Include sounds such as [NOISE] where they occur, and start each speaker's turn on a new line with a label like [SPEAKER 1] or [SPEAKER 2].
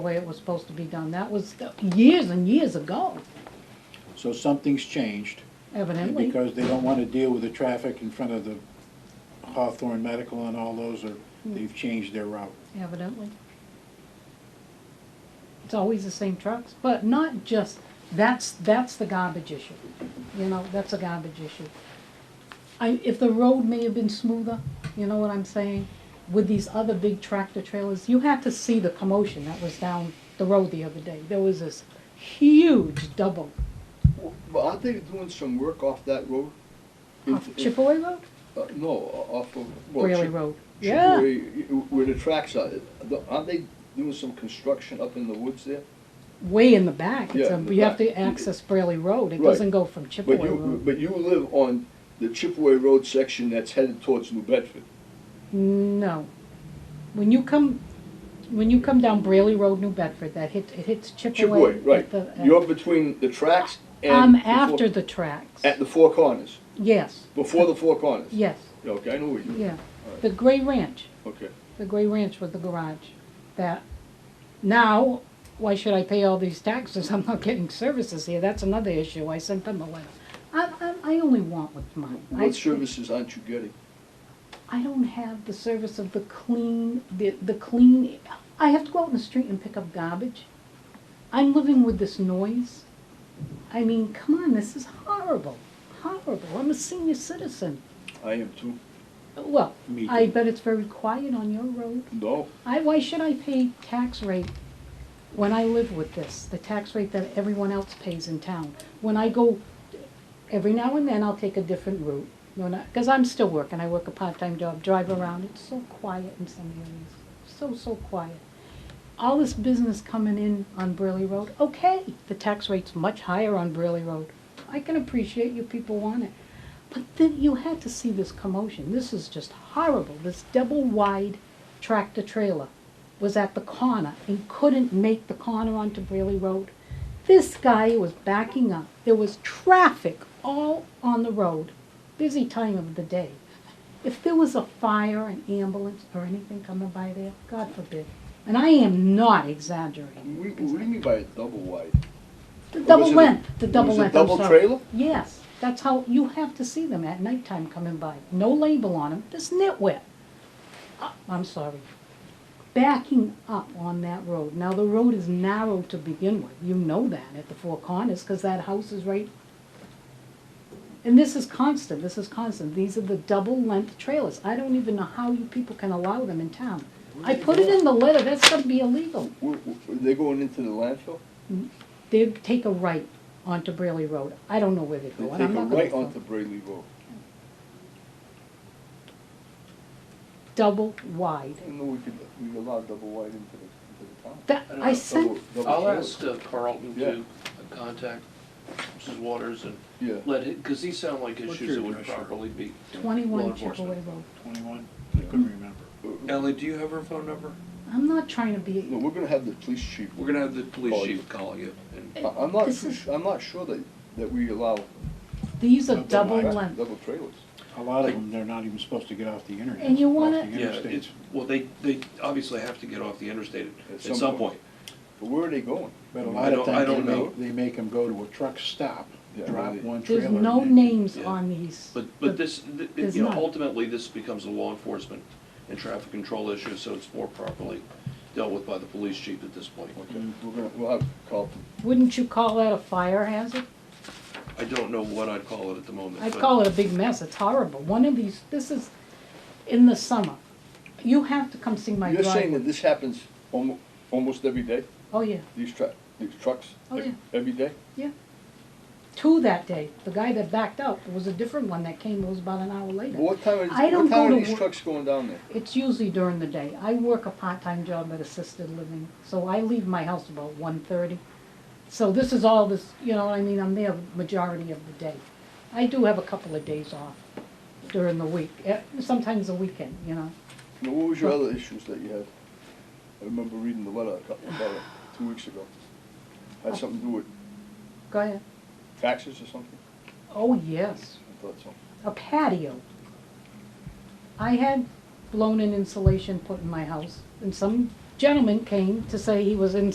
[SPEAKER 1] the way it was supposed to be done. That was the- years and years ago,
[SPEAKER 2] So something's changed, and
[SPEAKER 1] evidently.
[SPEAKER 2] because they don't wanna deal with the traffic in front of the Hawthorne Medical and all those, or
[SPEAKER 1] Hmm.
[SPEAKER 2] they've changed their route.
[SPEAKER 1] Evidently. It's always the same trucks, but not just, that's, that's the garbage issue. You know, that's a garbage issue. I, if the road may have been smoother, you know what I'm saying? With these other big tractor trailers, you had to see the commotion that was down the road the other day. There was this huge double
[SPEAKER 3] Well, aren't they doing some work off that road?
[SPEAKER 1] off
[SPEAKER 3] If- if-
[SPEAKER 1] Chipaway Road,
[SPEAKER 3] uh, No, off of. well,
[SPEAKER 1] Whaley
[SPEAKER 3] Chip-
[SPEAKER 1] Road. Yeah,
[SPEAKER 3] Chipaway, y- Where the tracks are, The- aren't they doing some construction up in the woods there?
[SPEAKER 1] way in the back. It's
[SPEAKER 3] Yeah,
[SPEAKER 1] a,
[SPEAKER 3] in the
[SPEAKER 1] you have
[SPEAKER 3] back.
[SPEAKER 1] to access Brayley Road. It
[SPEAKER 3] Right.
[SPEAKER 1] doesn't go from Chipaway
[SPEAKER 3] But
[SPEAKER 1] Road.
[SPEAKER 3] you, but you live on the Chipaway Road section that's headed towards New Bedford.
[SPEAKER 1] No. When you come, when you come down Brayley Road, New Bedford, that hit, it hits Chipaway.
[SPEAKER 3] Chipaway, right.
[SPEAKER 1] at the- at-
[SPEAKER 3] You're between the tracks and.
[SPEAKER 1] I'm
[SPEAKER 3] the four-
[SPEAKER 1] after the tracks.
[SPEAKER 3] At the Four Corners,
[SPEAKER 1] Yes,
[SPEAKER 3] before the Four Corners.
[SPEAKER 1] yes,
[SPEAKER 3] Okay, I know where you,
[SPEAKER 1] yeah. The Gray Ranch,
[SPEAKER 3] okay.
[SPEAKER 1] the Gray Ranch with the garage. That, now, why should I pay all these taxes? [LAUGHS] I'm not getting services here. That's another issue. I sent them a letter. I, I, I only want what's mine. I-
[SPEAKER 3] What services aren't you getting?
[SPEAKER 1] I don't have the service of the clean, the, the clean, I have to go out in the street and pick up garbage. I'm living with this noise. I mean, come on, this is horrible, horrible. I'm a senior citizen.
[SPEAKER 3] I am too.
[SPEAKER 1] Well,
[SPEAKER 2] Me
[SPEAKER 1] I
[SPEAKER 2] too.
[SPEAKER 1] bet it's very quiet on your road.
[SPEAKER 3] No,
[SPEAKER 1] I, why should I pay tax rate when I live with this, the tax rate that everyone else pays in town? When I go, every now and then I'll take a different route, when I, cause I'm still working, I work a part-time job, drive around, it's so quiet in some areas, so, so quiet. All this business coming in on Burley Road, okay, the tax rate's much higher on Burley Road. I can appreciate you people want it, but then you had to see this commotion, this is just horrible, this double-wide tractor trailer was at the corner and couldn't make the corner onto Brayley Road. This guy was backing up. There was traffic all on the road, busy time of the day. If there was a fire, an ambulance, or anything coming by there, God forbid. And I am not exaggerating.
[SPEAKER 3] we, what do you mean by a double wide?
[SPEAKER 1] The
[SPEAKER 3] Was
[SPEAKER 1] double
[SPEAKER 3] it a-
[SPEAKER 1] length, the
[SPEAKER 3] was
[SPEAKER 1] double
[SPEAKER 3] it
[SPEAKER 1] length, I'm
[SPEAKER 3] double
[SPEAKER 1] sorry.
[SPEAKER 3] trailer?
[SPEAKER 1] Yes, that's how, you have to see them at nighttime coming by. No label on them, this nitwit. Uh, I'm sorry. Backing up on that road. Now, the road is narrow to begin with. You know that at the Four Corners, because that house is right. And this is constant, this is constant. These are the double-length trailers. I don't even know how you people can allow them in town. I put it in the letter, that's gonna be illegal.
[SPEAKER 3] Were, were they going into the landfill?
[SPEAKER 1] They take a right onto Brayley Road. I don't know where they
[SPEAKER 3] They
[SPEAKER 1] go,
[SPEAKER 3] take
[SPEAKER 1] and I'm
[SPEAKER 3] a
[SPEAKER 1] not gonna.
[SPEAKER 3] right
[SPEAKER 1] go.
[SPEAKER 3] onto Brayley Road.
[SPEAKER 1] Double wide.
[SPEAKER 3] I didn't know we could, we allowed double wide into the, into the town.
[SPEAKER 1] That,
[SPEAKER 4] I don't
[SPEAKER 1] I
[SPEAKER 4] know,
[SPEAKER 1] sent,
[SPEAKER 3] Double- double
[SPEAKER 4] I'll
[SPEAKER 3] trailer.
[SPEAKER 4] ask uh, Carlton to contact Mrs. Waters and
[SPEAKER 3] Yeah,
[SPEAKER 4] let it, because these sound like
[SPEAKER 2] What's
[SPEAKER 4] issues
[SPEAKER 2] your
[SPEAKER 4] that would
[SPEAKER 2] address, Rick?
[SPEAKER 4] properly be.
[SPEAKER 1] twenty-one
[SPEAKER 4] Law enforcement.
[SPEAKER 1] Chipaway Road.
[SPEAKER 2] Twenty-one, I couldn't remember.
[SPEAKER 4] Ellie, do you have her phone number?
[SPEAKER 1] I'm not trying to
[SPEAKER 3] no,
[SPEAKER 1] be,
[SPEAKER 3] we're gonna have the police chief.
[SPEAKER 4] We're gonna have the police
[SPEAKER 3] Call
[SPEAKER 4] chief call you. and-
[SPEAKER 3] I- I'm not
[SPEAKER 1] This
[SPEAKER 3] too,
[SPEAKER 1] is-
[SPEAKER 3] su- I'm not sure that, that we allow.
[SPEAKER 1] these are
[SPEAKER 2] Double
[SPEAKER 1] double
[SPEAKER 2] wide.
[SPEAKER 1] length.
[SPEAKER 3] Double trailers.
[SPEAKER 2] A lot of them, they're not even supposed to get off the internet.
[SPEAKER 1] And you
[SPEAKER 2] off
[SPEAKER 1] wanna-
[SPEAKER 2] the
[SPEAKER 4] Yeah,
[SPEAKER 2] interstates.
[SPEAKER 4] it's, well, they, they obviously have to get off the interstate
[SPEAKER 3] At
[SPEAKER 4] at
[SPEAKER 3] some
[SPEAKER 4] some
[SPEAKER 3] point.
[SPEAKER 4] point.
[SPEAKER 3] But where are they going?
[SPEAKER 2] But a
[SPEAKER 4] I
[SPEAKER 2] lot of
[SPEAKER 4] don't- I
[SPEAKER 2] times, they
[SPEAKER 4] don't know.
[SPEAKER 2] make, they make them go to a truck stop,
[SPEAKER 3] Yeah,
[SPEAKER 2] drop
[SPEAKER 3] really.
[SPEAKER 2] one trailer.
[SPEAKER 1] There's no
[SPEAKER 2] and then-
[SPEAKER 1] names
[SPEAKER 4] Yeah.
[SPEAKER 1] on these.
[SPEAKER 4] But, but this, th-
[SPEAKER 1] There's
[SPEAKER 4] you know,
[SPEAKER 1] not.
[SPEAKER 4] ultimately, this becomes a law enforcement and traffic control issue, so it's more properly dealt with by the police chief at this point.
[SPEAKER 3] Okay, we're gonna, we'll have Carlton.
[SPEAKER 1] Wouldn't you call that a fire hazard?
[SPEAKER 4] I don't know what I'd call it at the moment.
[SPEAKER 1] I'd
[SPEAKER 4] but-
[SPEAKER 1] call it a big mess. It's horrible. One of these, this is in the summer. You have to come see my
[SPEAKER 3] You're saying
[SPEAKER 1] driveway.
[SPEAKER 3] that this happens almo- almost every day,
[SPEAKER 1] Oh, yeah,
[SPEAKER 3] these truck, these trucks?
[SPEAKER 1] Oh,
[SPEAKER 3] ev-
[SPEAKER 1] yeah.
[SPEAKER 3] Every day?
[SPEAKER 1] yeah. Two that day. The guy that backed up was a different one that came, it was about an hour later.
[SPEAKER 3] Well, What time are,
[SPEAKER 1] I don't
[SPEAKER 3] what time
[SPEAKER 1] go
[SPEAKER 3] are
[SPEAKER 1] to
[SPEAKER 3] these
[SPEAKER 1] work-
[SPEAKER 3] trucks going down there?
[SPEAKER 1] It's usually during the day. I work a part-time job at assisted living, so I leave my house about one thirty. So this is all this, you know what I mean, I'm there majority of the day. I do have a couple of days off during the week, eh, sometimes the weekend, you know.
[SPEAKER 3] Now, what was your other issues that you had? I remember reading the letter a couple, about it, two weeks ago. Had something to do with
[SPEAKER 1] Go ahead.
[SPEAKER 3] taxes or something?
[SPEAKER 1] Oh, yes.
[SPEAKER 3] I thought so.
[SPEAKER 1] a patio. I had blown in insulation put in my house, and some gentleman came to say he was in